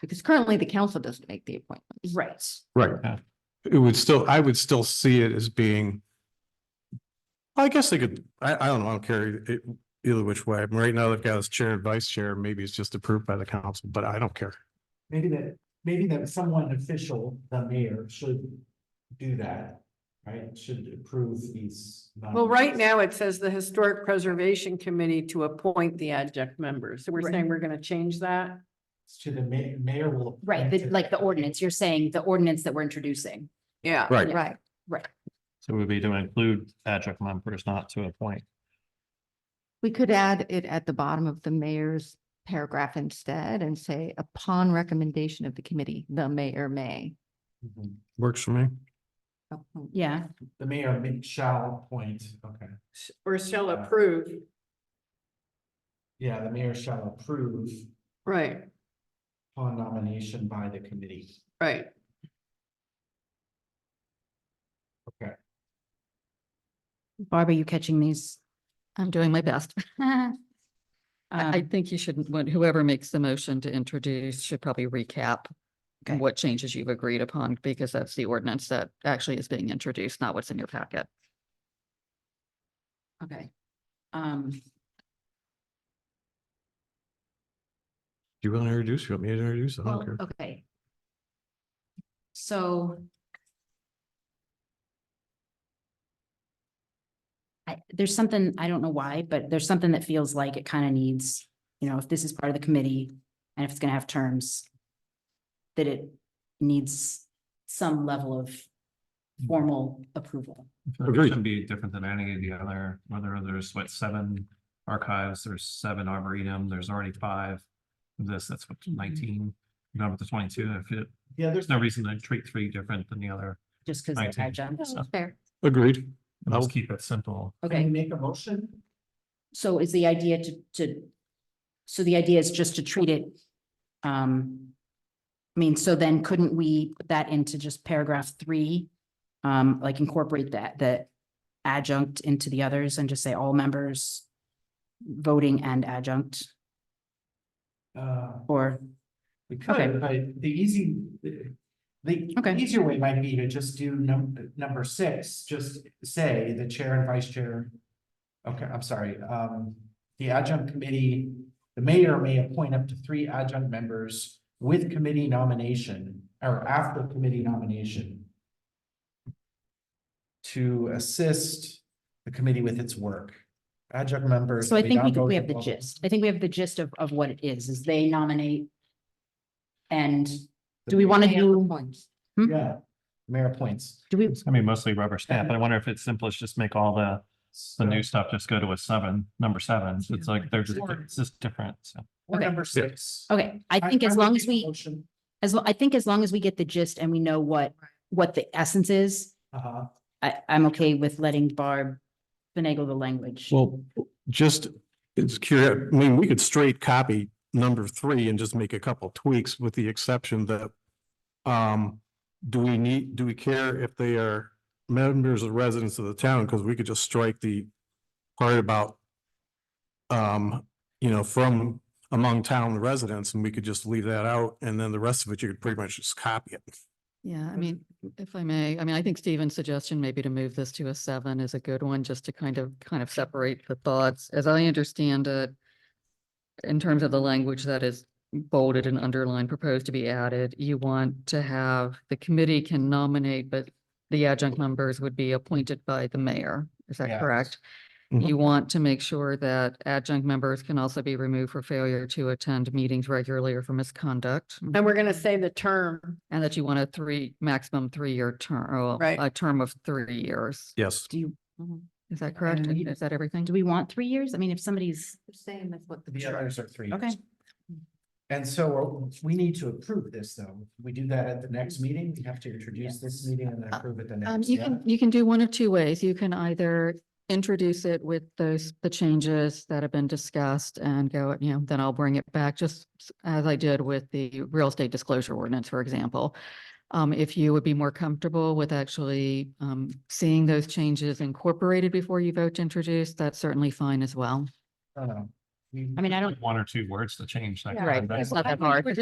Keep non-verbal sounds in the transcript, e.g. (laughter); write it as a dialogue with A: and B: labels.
A: because currently the council doesn't make the appointments.
B: Right.
C: Right. It would still, I would still see it as being. I guess they could, I, I don't know, I don't care it either which way. Right now, they've got this chair and vice chair, maybe it's just approved by the council, but I don't care.
D: Maybe that, maybe that someone official, the mayor, should do that, right? Should approve these.
E: Well, right
D: nominees.
E: now it says the Historic Preservation Committee to appoint the adjunct members. So we're
B: Right.
E: saying we're gonna change that?
D: To the ma- mayor will.
B: Right,
D: appoint
B: the-
D: it.
B: like the ordinance, you're saying the ordinance that we're introducing.
E: Yeah.
C: Right.
A: Right.
F: So it would be to include adjunct members, not to appoint.
A: We could add it at the bottom of the mayor's paragraph instead and say, upon recommendation of the committee, the mayor may.
D: Mhm.
C: Works for me.
B: Yeah.
D: The mayor ma- shall appoint, okay.
E: Or shall approve,
D: Yeah, the mayor shall approve
E: right,
D: upon nomination by the committee.
E: right.
B: Barbara, you catching these?
G: I'm doing my best. (laughs) I, I
B: Um,
G: think you shouldn't, when- whoever makes the motion to introduce should probably recap
B: Okay.
G: what changes you've agreed upon, because that's the ordinance that actually is being introduced, not what's in your packet.
B: Okay. Um,
C: Do you want to introduce? You want me to introduce? I
B: well, oh.
C: don't care.
B: okay. So. I, there's something, I don't know why, but there's something that feels like it kind of needs, you know, if this is part of the committee and if it's gonna have terms. That it needs some level of
C: Hmm.
B: formal approval.
C: Agreed.
F: It should be different than any of the other, whether there's what, seven archives, there's seven arboretum, there's already five. This, that's what nineteen, number to twenty-two, if it,
D: Mm-hmm. Yeah, there's
F: there's no reason to treat three different than the other.
B: just because they're
F: Nineteen.
B: adjuncts.
F: So-
A: Fair.
C: Agreed.
F: Let's keep it simple.
D: Can we
B: Okay,
D: make a motion?
B: so is the idea to, to, so the idea is just to treat it, um, I mean, so then couldn't we put that into just paragraph three? Um, like incorporate that, the adjunct into the others and just say all members voting and adjunct,
D: Uh,
B: or,
D: We
B: Okay.
D: could, but the easy, the the
B: Okay.
D: easier way might be to just do num- number six, just say the chair and vice chair. Okay, I'm sorry, um, the adjunct committee, the mayor may appoint up to three adjunct members with committee nomination or after committee nomination to assist the committee with its work. Adjunct members.
B: so I
D: may
B: think
D: not
B: we, could-
D: vote
B: we
D: in
B: have the
D: public.
B: gist. I think we have the gist of, of what it is, is they nominate. And do we want to do, Hmm?
D: Yeah, mayor appoints.
B: do we,
F: It's gonna be mostly rubber stamp, but I wonder if it's simplest, just make all the, the new stuff just go to a seven, number seven. It's like, they're just, it's just different, so.
D: Or
B: Okay.
D: number six.
B: okay, I think as
D: would
B: long
D: make
B: as
D: a
B: we.
D: motion,
B: As well, I think as long as we get the gist and we know what, what the essence is,
D: uh,
B: I, I'm okay with letting Barb finagle the language.
C: Well, just, it's curious, I mean, we could straight copy number three and just make a couple tweaks with the exception that um, do we need, do we care if they are members or residents of the town? Because we could just strike the part about um, you know, from among town residents and we could just leave that out and then the rest of it, you could pretty much just copy it.
G: Yeah, I mean, if I may, I mean, I think Stephen's suggestion maybe to move this to a seven is a good one, just to kind of, kind of separate the thoughts. As I understand it, in terms of the language that is bolded and underlined, proposed to be added, you want to have, the committee can nominate, but the adjunct members would be appointed by the mayor. Is that
D: Yes.
G: correct?
C: Mhm.
G: You want to make sure that adjunct members can also be removed for failure to attend meetings regularly or for misconduct.
E: And we're gonna say the term,
G: And that you want a three, maximum three-year term, or
E: Right.
G: a term of three years.
C: Yes.
B: Do you,
G: Is that correct?
B: we-
G: Is that everything?
B: do we want three years? I mean, if somebody's,
A: Same as what
D: the others are three.
B: Okay.
D: years. And so uh, we need to approve this, though. We do that at the next meeting. We have to introduce this meeting
B: Uh,
D: and then approve it the
G: Um,
D: next.
G: you
D: yeah.
G: can, you can do one of two ways. You can either introduce it with those, the changes that have been discussed and go, you know, then I'll bring it back, just s- as I did with the real estate disclosure ordinance, for example. Um, if you would be more comfortable with actually, um, seeing those changes incorporated before you vote to introduce, that's certainly fine as well.
D: I don't know. Uh, We-
B: I mean, I don't,
F: One or two words to change. that kind of-
G: Right, it's not that hard.